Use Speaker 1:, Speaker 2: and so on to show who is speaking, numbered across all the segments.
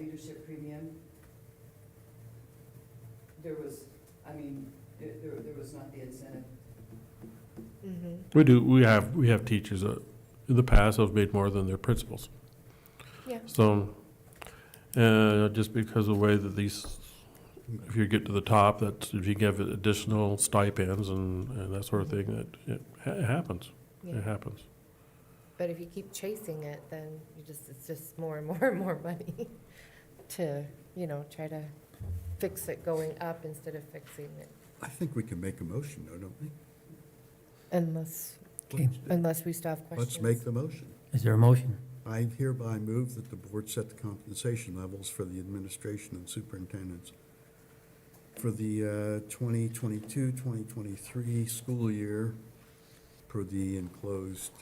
Speaker 1: leadership premium, there was, I mean, there, there- there was not the incentive.
Speaker 2: Mhm.
Speaker 3: We do, we have, we have teachers that, in the past, have made more than their principals.
Speaker 2: Yeah.
Speaker 3: So, uh, just because of the way that these, if you get to the top, that if you give it additional stipends and, and that sort of thing, that, it ha- it happens,
Speaker 2: Yeah.
Speaker 3: it
Speaker 4: Uh-huh.
Speaker 3: happens.
Speaker 2: But if you keep chasing it, then you just, it's just more and more and more money to, you know, try to fix it going up instead of fixing it.
Speaker 5: I think we can make a motion, though, don't we?
Speaker 2: Unless,
Speaker 4: Okay.
Speaker 5: Let's-
Speaker 2: unless we still have questions.
Speaker 5: Let's make the motion.
Speaker 4: Is there a motion?
Speaker 5: I hereby move that the board set the compensation levels for the administration and superintendents for the uh, 2022-2023 school year per the enclosed,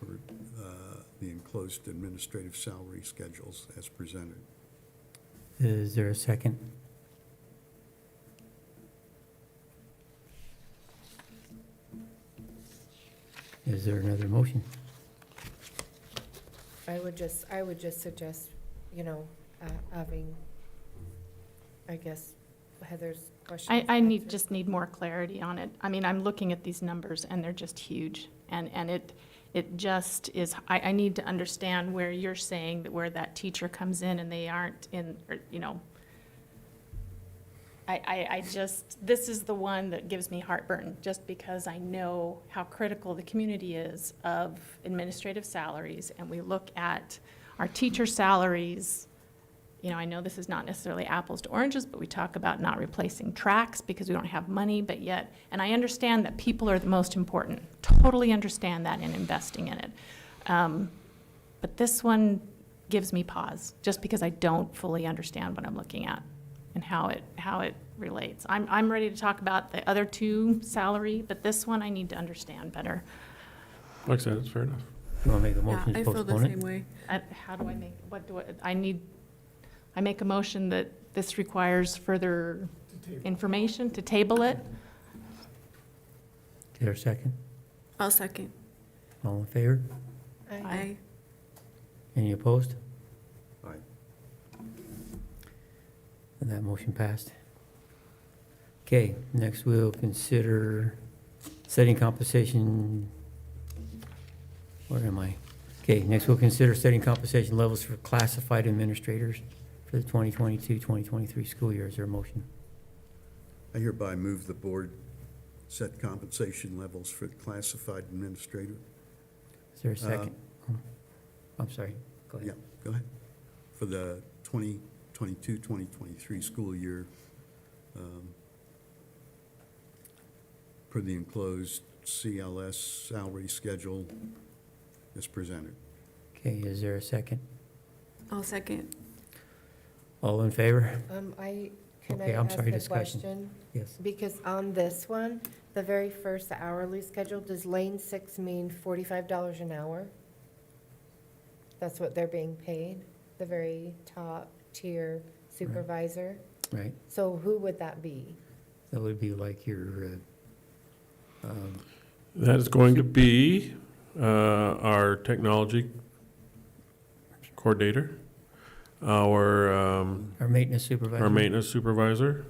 Speaker 5: per uh, the enclosed administrative salary schedules as presented.
Speaker 4: Is there a second? Is there another motion?
Speaker 2: I would just, I would just suggest, you know, uh, having, I guess, Heather's question.
Speaker 6: I, I need, just need more clarity on it. I mean, I'm looking at these numbers and they're just huge. And, and it, it just is, I, I need to understand where you're saying that where that teacher comes in and they aren't in, or, you know. I, I, I just, this is the one that gives me heartburn, just because I know how critical the community is of administrative salaries. And we look at our teacher salaries you know, I know this is not necessarily apples to oranges, but we talk about not replacing tracks because we don't have money, but yet, and I understand that people are the most important. Totally understand that in investing in it. Um, But this one gives me pause, just because I don't fully understand what I'm looking at and how it, how it relates. I'm, I'm ready to talk about the other two salary, but this one I need to understand better.
Speaker 3: Like I said, it's fair enough.
Speaker 4: You want to make a
Speaker 7: Yeah,
Speaker 4: motion
Speaker 7: I
Speaker 4: to
Speaker 7: feel the
Speaker 4: postpone
Speaker 7: same
Speaker 4: it?
Speaker 7: way.
Speaker 6: Uh, How do I make, what do I, I need, I make a motion that this requires further information to table it?
Speaker 4: Is there a second?
Speaker 7: I'll second.
Speaker 4: All in favor?
Speaker 2: I-
Speaker 7: I,
Speaker 4: Any opposed?
Speaker 5: Aye.
Speaker 4: And that motion passed. Okay, next we'll consider setting compensation. Where am I? Okay, next we'll consider setting compensation levels for classified administrators for the 2022, 2023 school year. Is there a motion?
Speaker 5: I hereby move the board set compensation levels for classified administrator,
Speaker 4: Is there a second? Oh, I'm sorry, go ahead.
Speaker 5: yeah, go ahead, for the 2022, 2023 school year um, per the enclosed CLS salary schedule as presented.
Speaker 4: Okay, is there a second?
Speaker 7: I'll second.
Speaker 4: All in favor?
Speaker 2: Um, I, can I
Speaker 4: Okay, I'm
Speaker 2: ask
Speaker 4: sorry,
Speaker 2: a
Speaker 4: discussion.
Speaker 2: question?
Speaker 4: Yes.
Speaker 2: Because on this one, the very first hourly schedule, does lane six mean forty-five dollars an hour? That's what they're being paid, the very top tier supervisor?
Speaker 4: Right,
Speaker 2: So who would that be?
Speaker 4: that would be like your, uh, um,
Speaker 3: That is going to be uh, our technology coordinator, our um,
Speaker 4: our maintenance supervisor.
Speaker 3: our maintenance supervisor.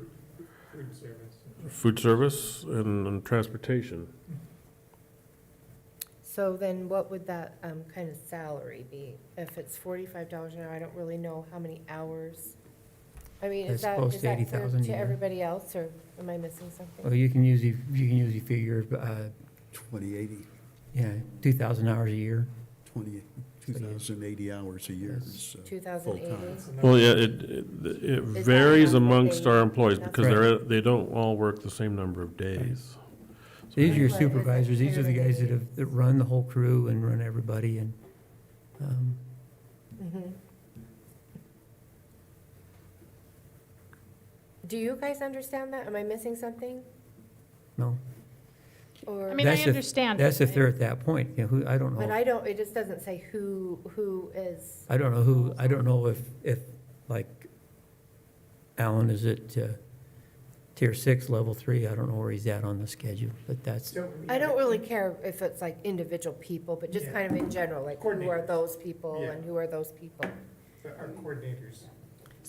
Speaker 3: Food service. and and transportation.
Speaker 2: So then what would that, um, kind of salary be? If it's forty-five dollars an hour, I don't really know how many hours. I mean, is
Speaker 4: It's
Speaker 2: that,
Speaker 4: close
Speaker 2: is
Speaker 4: to
Speaker 2: that clear
Speaker 4: $80,000 a
Speaker 2: to
Speaker 4: year.
Speaker 2: everybody else, or am I missing
Speaker 4: Well,
Speaker 2: something?
Speaker 4: you can usually, you can usually figure, uh,
Speaker 5: 2080,
Speaker 4: yeah, two thousand hours a year.
Speaker 5: 20 2,080 hours a year is
Speaker 2: Two
Speaker 5: uh,
Speaker 2: thousand
Speaker 5: full-time.
Speaker 2: eighty?
Speaker 3: Well, yeah, it, it it
Speaker 2: that
Speaker 3: varies
Speaker 2: enough that
Speaker 3: amongst
Speaker 2: they-
Speaker 3: our employees
Speaker 2: that's
Speaker 3: because they're, they don't all work the same number of days.
Speaker 4: These are
Speaker 2: Right, but
Speaker 4: your
Speaker 2: that's
Speaker 4: supervisors, these are the guys that
Speaker 2: everybody.
Speaker 4: have, that run the whole crew and run everybody and, um,
Speaker 2: Mhm. Do you guys understand that? Am I missing something?
Speaker 4: no.
Speaker 2: Or,
Speaker 6: I mean, I
Speaker 4: That's if-
Speaker 6: understand.
Speaker 4: That's
Speaker 6: but
Speaker 4: if they're at that point, you know, who, I don't
Speaker 2: but
Speaker 4: know,
Speaker 2: I don't, it just doesn't say who, who is,
Speaker 4: I don't know who, I don't know if, if, like, Alan is at, uh, tier six, level three, I don't know where he's at on the schedule, but that's,
Speaker 2: I don't really care if it's like individual people, but just
Speaker 8: Yeah.
Speaker 2: kind of in general, like who are
Speaker 8: Coordinators.
Speaker 2: those people
Speaker 8: Yeah.
Speaker 2: and who are those people?
Speaker 8: Our coordinators.